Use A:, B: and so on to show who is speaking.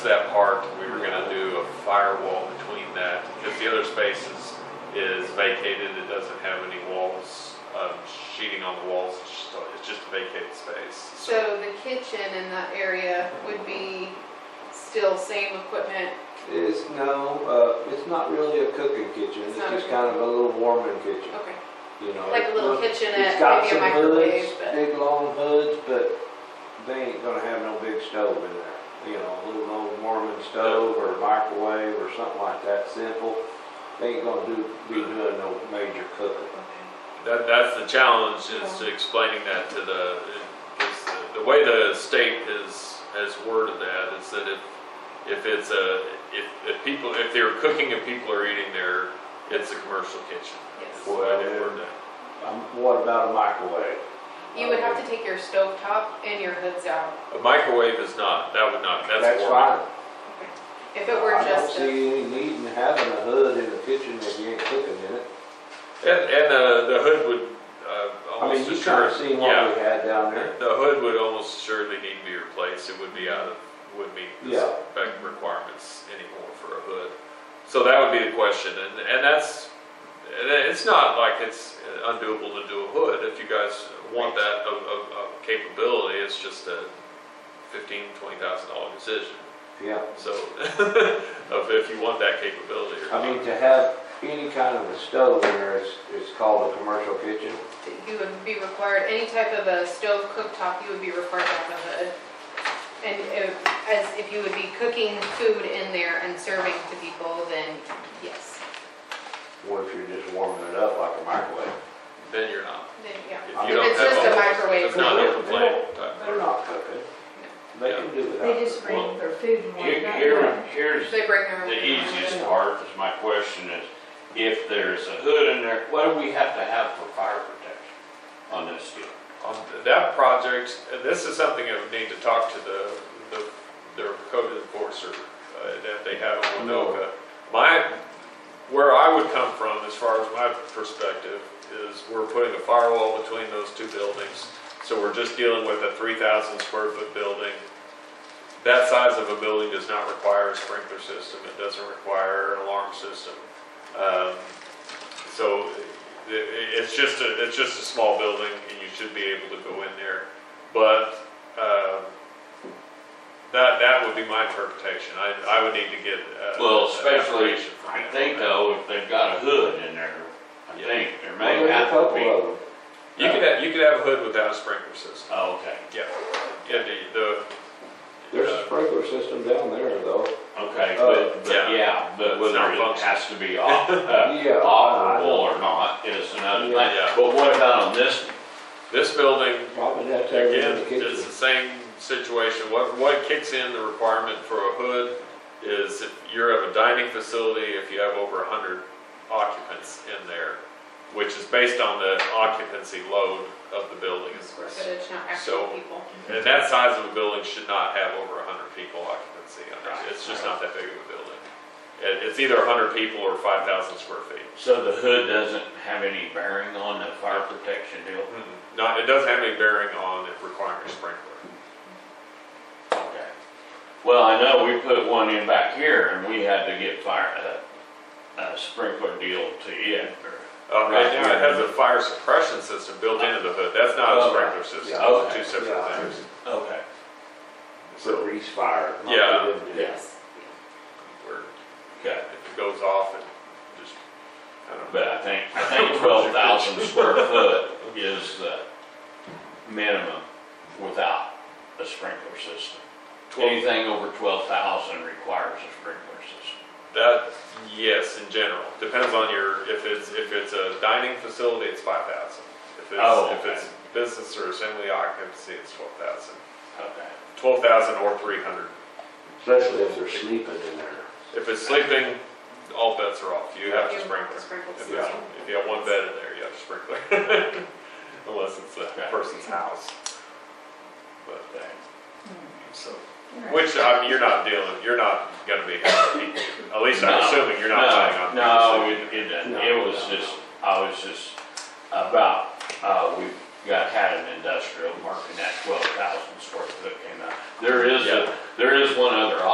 A: that park, we were gonna do a firewall between that, because the other space is, is vacated, it doesn't have any walls, um, sheeting on the walls, it's just, it's just a vacated space.
B: So the kitchen in that area would be still same equipment,
C: It's, no, uh, it's not really a cooking kitchen, it's
B: It's not a
C: just kind of a little warming kitchen,
B: okay,
C: you know.
B: like a little
C: It's- It's
B: kitchenette,
C: got
B: maybe
C: some
B: a microwave,
C: hoods,
B: but,
C: big long hoods, but they ain't gonna have no big stove in there. You know, a little old warming stove or microwave or something like that, simple. They ain't gonna do, be doing no major cooking.
B: okay,
A: That, that's the challenge, is to explaining that to the, is the- the way the state has, has worded that, is that if, if it's a, if, if people, if they're cooking and people are eating there, it's a commercial kitchen. That's the
B: yes.
A: way they word that.
C: Um, what about a microwave?
B: You would have to take your stove top and your hoods out.
A: A microwave is not, that would not, that's.
C: That's
A: warming.
C: fine.
B: Okay. If it were
C: I don't
B: just a,
C: see any need in having a hood in the kitchen if you ain't cooking in it.
A: And, and uh, the hood would uh,
C: I mean,
A: almost
C: you kind of
A: assuredly,
C: seen what
A: yeah,
C: we had down there.
A: the hood would almost assuredly need to be replaced. It would be out of, would meet the
C: Yeah.
A: spec requirements anymore for a hood. So that would be the question, and, and that's, and it's not like it's undoable to do a hood. If you guys want that of, of, of capability, it's just a fifteen, twenty thousand dollar decision.
C: Yeah.
A: So, of if you want that capability or
C: I mean,
A: not.
C: to have any kind of a stove in there is, is called a commercial kitchen.
B: you would be required, any type of a stove cooktop, you would be required to have a hood. And if, as if you would be cooking food in there and serving to people, then yes,
C: What if you're just warming it up like a microwave?
A: Then you're not.
B: then, yeah.
A: If
C: If
A: you don't
B: it's
A: have
B: just
A: all
B: a
A: those-
B: microwave,
A: It's not
C: no.
A: open plate Uh, type
C: They're not cooking. They can do without.
D: They just bring their food and
E: Here-
D: whatnot.
E: Here, here's
B: They break their own.
E: the easiest part, is my question is, if there's a hood in there, what do we have to have for fire protection on this deal?
A: On th- um, that project, and this is something I would need to talk to the, the, their code enforcer uh, that they have in Winoka. My, where I would come from, as far as my perspective, is we're putting a firewall between those two buildings. So we're just dealing with a three thousand square foot building. That size of a building does not require a sprinkler system, it doesn't require an alarm system. Um, So i- i- it's just a, it's just a small building and you should be able to go in there. But um, that, that would be my interpretation. I, I would need to get. uh,
E: Well,
A: an
E: especially,
A: affirmation from
E: I
A: them.
E: think though, if they've got a hood in there, I
A: Yeah.
E: think there
C: Well,
E: may
C: there's a
E: have to
C: couple
E: be.
C: of them.
A: You could, have- you could have a hood without a sprinkler system.
E: Oh, okay,
A: Yeah, yeah, the- the.
C: There's a
A: uh,
C: sprinkler system down there though.
E: okay,
C: Oh,
E: but, but
A: yeah.
E: yeah, but
A: It's
E: whether
A: not
E: it
A: functional.
E: has to be off, uh,
C: Yeah, I-
E: operable or not is another thing.
A: Yeah. Yeah.
E: But what about on this one?
A: This building
C: Probably have to have it in
A: Again,
C: the
A: it's
C: kitchen.
A: the same situation. What, what kicks in the requirement for a hood is if you're of a dining facility, if you have over hundred occupants in there, which is based on the occupancy load of the building.
B: Square footage, not
A: So-
B: actual people.
A: And that size of a building should not have over hundred people occupancy. on it. It's just not that big of a building. It, it's either hundred people or five thousand square feet.
E: So the hood doesn't have any bearing on the fire protection deal?
A: Not, it doesn't have any bearing on it requiring a sprinkler.
E: Okay. Well, I know we put one in back here and we had to get fire, uh, a, a sprinkler deal to it. or-
A: Uh, right
E: Right.
A: now, it has a fire suppression system built into the hood, that's not a
E: Oh,
A: sprinkler
E: right.
A: system,
C: Yeah.
A: those are
E: Okay.
A: two separate
C: Yeah.
A: things.
E: Okay.
C: So grease fire. not
A: Yeah.
C: good, yeah.
B: Yes.
A: Where
E: Okay.
A: if it goes off, it just, I don't know.
E: But I think, I think twelve thousand square foot is the minimum without a sprinkler system.
A: Twelve,
E: Anything over twelve thousand requires a sprinkler system.
A: that, yes, in general, depends on your, if it's, if it's a dining facility, it's five thousand. If
E: Oh,
A: it's, if
E: okay.
A: it's business or assembly occupancy, it's twelve thousand.
E: Okay.
A: Twelve thousand or three hundred.
C: Especially if they're sleeping in there.
A: If it's sleeping, all bets are off, you have
B: You
A: to
B: have
A: sprinkler.
B: to sprinkle
A: If
B: system.
A: it's- If you have one bed in there, you have to sprinkler, unless it's the
E: Okay.
A: person's house. But,
E: Okay.
A: so,
D: Right.
A: which, I mean, you're not dealing, you're not gonna be, at least I'm
E: No,
A: assuming you're not
E: no,
A: planning on.
E: No, it, it doesn't,
C: No,
E: it was
C: no.
E: just, I was just about, uh, we got, had an industrial park and that twelve thousand square foot came out. There is,
A: Yeah.
E: a- there is one other